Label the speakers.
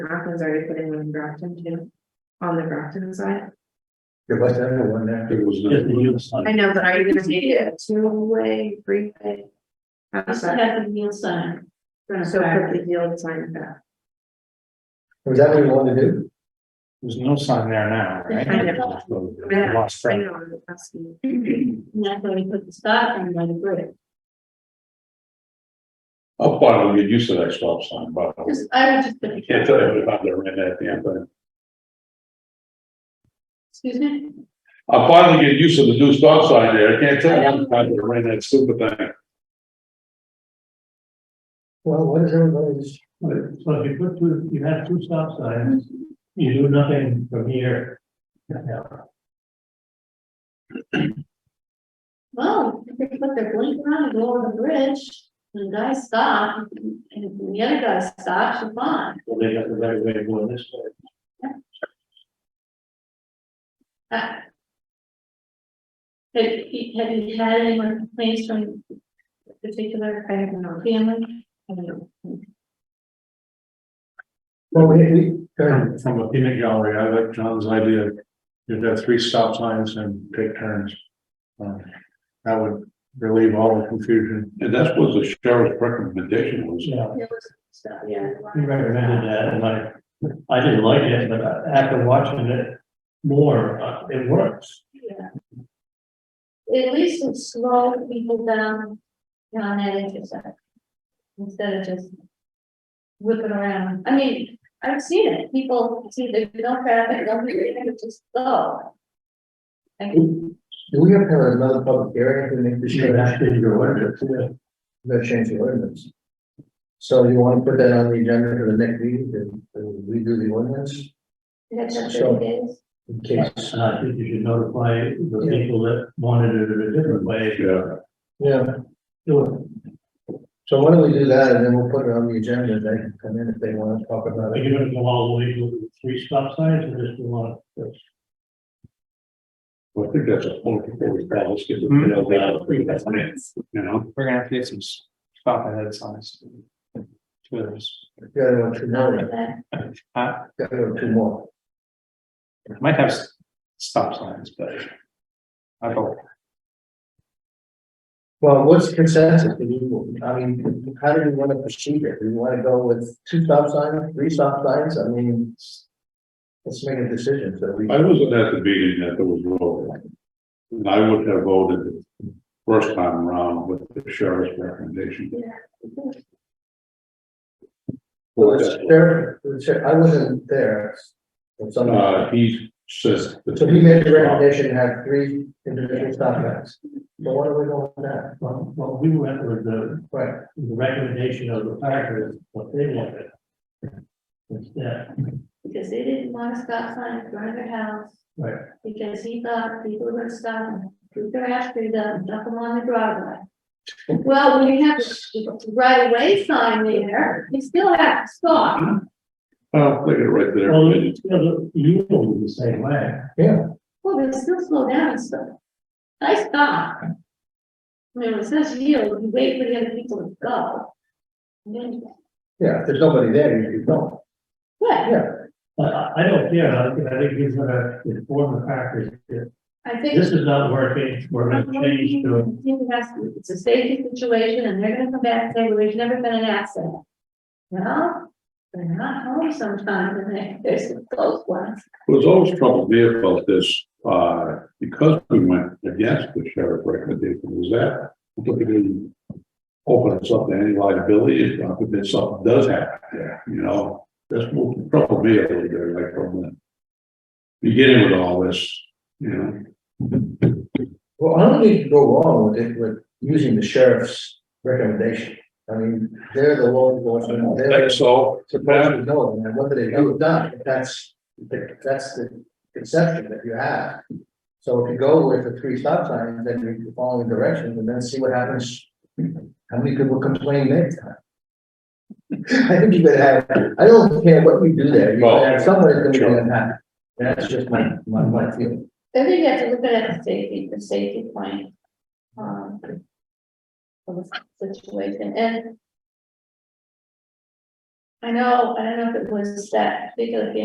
Speaker 1: Rockland's already putting one in Brockton too, on the Brockton side.
Speaker 2: There was another one there.
Speaker 3: There was
Speaker 4: Just the
Speaker 3: no,
Speaker 4: yield
Speaker 1: I
Speaker 4: sign.
Speaker 1: know, but are you gonna make it a two-way, three-way? I'm
Speaker 5: Just
Speaker 1: sorry,
Speaker 5: have the yield sign.
Speaker 1: so put the yield sign back.
Speaker 2: Was that what you wanted to do?
Speaker 4: There's no sign there now,
Speaker 1: I
Speaker 4: right?
Speaker 1: know.
Speaker 4: I Lost
Speaker 1: I
Speaker 4: track.
Speaker 1: know, I'm asking.
Speaker 5: And that's where we put the stop and by the brick.
Speaker 3: I'll probably get used to that stop sign, but
Speaker 5: Just, I would just put.
Speaker 3: I can't tell you how they ran that damn thing.
Speaker 5: Excuse me?
Speaker 3: I'll finally get used to the new stop sign there. I can't tell you how they ran that stupid thing.
Speaker 2: Well, what is everybody's,
Speaker 4: So if you put two, you have two stop signs, you do nothing from here.
Speaker 5: Well, if they put their blinker on and go over the bridge, and the guy stopped, and if the other guy stops, you're fine.
Speaker 4: Well, they have the right way of going this way.
Speaker 5: Uh, Have you, have you had any more complaints from particular
Speaker 1: I have no,
Speaker 5: family?
Speaker 1: I don't know.
Speaker 2: well, we, we, go ahead.
Speaker 3: From from a peanut gallery, I like John's idea. You've got three stop signs and take turns. Um, That would relieve all the confusion. And that's what the sheriff's recommendation was.
Speaker 4: Yeah,
Speaker 1: It was- So, yeah.
Speaker 4: he
Speaker 3: uh,
Speaker 4: recommended that, and I, I didn't like it, but after watching it more, uh, it works.
Speaker 5: At least it slowed people down on that intersection. Instead of just whipping around. I mean, I've seen it. People see there's no traffic, don't do anything, they just go. I
Speaker 2: do we have to have another public hearing to make the change?
Speaker 4: your ordinance, yeah.
Speaker 2: The change the ordinance. So you want to put that on the agenda for the next meeting, and and we do the ordinance
Speaker 5: that's just
Speaker 2: Sure.
Speaker 5: what it is.
Speaker 2: in case?
Speaker 4: And I think you should notify the people that wanted it in a different way.
Speaker 3: Yeah.
Speaker 2: Yeah,
Speaker 4: Do it.
Speaker 2: so why don't we do that, and then we'll put it on the agenda, and they can come in if they want to talk about
Speaker 4: Are
Speaker 2: it.
Speaker 4: you gonna go all the way to three stop signs or just one?
Speaker 3: Well, I think that's a political balance. get the hell out of here, You know,
Speaker 6: We're gonna have to get some s- stop ahead signs. Two of those.
Speaker 2: The other one, two
Speaker 5: Not
Speaker 2: more,
Speaker 5: like that.
Speaker 6: Uh,
Speaker 2: the other one, two more.
Speaker 6: might have s- stop signs, but. I don't,
Speaker 2: Well, what's consensus? Do you, I mean, how do you want to proceed here? Do you want to go with two stop signs, three stop signs? I mean, let's make a decision, so we.
Speaker 3: I wasn't at the meeting that there was no. And I would have voted the first time around with the sheriff's recommendation.
Speaker 2: Well, it's there, it's- I wasn't there. But somebody-
Speaker 3: Uh, he says. uh,
Speaker 2: So he made the recommendation to have three individual stop signs. But what are we going with that?
Speaker 4: Well, well, we went with the,
Speaker 2: Right,
Speaker 4: the recommendation of the packers, what they wanted. Instead,
Speaker 5: Because they didn't want to stop sign in front of their house.
Speaker 4: Right.
Speaker 5: Because he thought people were gonna stop and shoot their ass through them, dump them on the driveway. Well, when you have the right away sign there, you still have to stop.
Speaker 3: Oh, look at it right there.
Speaker 4: well, you know, you were the same way.
Speaker 2: yeah,
Speaker 5: Well, they Oh, still slow down and stuff. I stop. I mean, when it says yield, you wait for the other people to go. And then,
Speaker 2: yeah, if there's nobody there, you you don't.
Speaker 5: yeah,
Speaker 4: But I, I don't care, I think, I think he's gonna inform the packers that
Speaker 5: I think.
Speaker 4: this is not working, we're gonna change to.
Speaker 5: I think it has to- It's a safety situation and they're gonna come back and say, well, there's never been an accident. Well, they're not home sometimes and they- there's some close ones.
Speaker 3: There's always trouble there about this, uh, because we went against the sheriff recommendation, was that completely open us up to any liability if uh, if something does happen there, you know? That's what the trouble there, really, there, like from the beginning with all this, you know?
Speaker 2: Well, I don't think you go wrong with it, with using the sheriff's recommendation. I mean, they're the law enforcement, they're.
Speaker 3: Like so,
Speaker 2: supposed to know, and then what do they do with that? That's, that's the conception that you have. So if you go with the three stop signs, then you're following directions, and then see what happens. How many people complain next time? I think you better have, I don't care what you do there, you
Speaker 3: Well,
Speaker 2: better have someone that's gonna
Speaker 3: sure.
Speaker 2: be unhappy. That's just my, my, my feeling.
Speaker 5: I think you have to look at it the safety, the safety point. Um. Of the situation and. I know, I don't know if it was that particular family